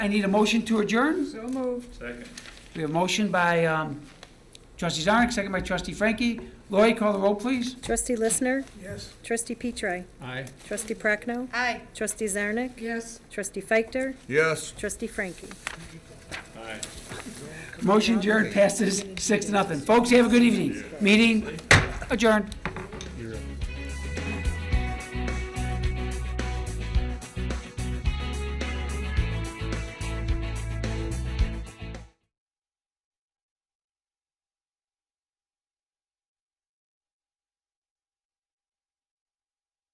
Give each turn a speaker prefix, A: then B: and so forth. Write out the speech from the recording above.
A: I need a motion to adjourn.
B: So moved.
C: Second.
A: We have a motion by um, trustee Zarnik, second by trustee Frankie. Lori, call the roll, please.
D: Trustee Listener?
C: Yes.
D: Trustee Petri?
C: Aye.
D: Trustee Prochnow?
B: Aye.
D: Trustee Zarnik?
B: Yes.
D: Trustee Feichter?
E: Yes.
D: Trustee Frankie?
C: Aye.
A: Motion adjourned, passes six to nothing. Folks, have a good evening. Meeting adjourned.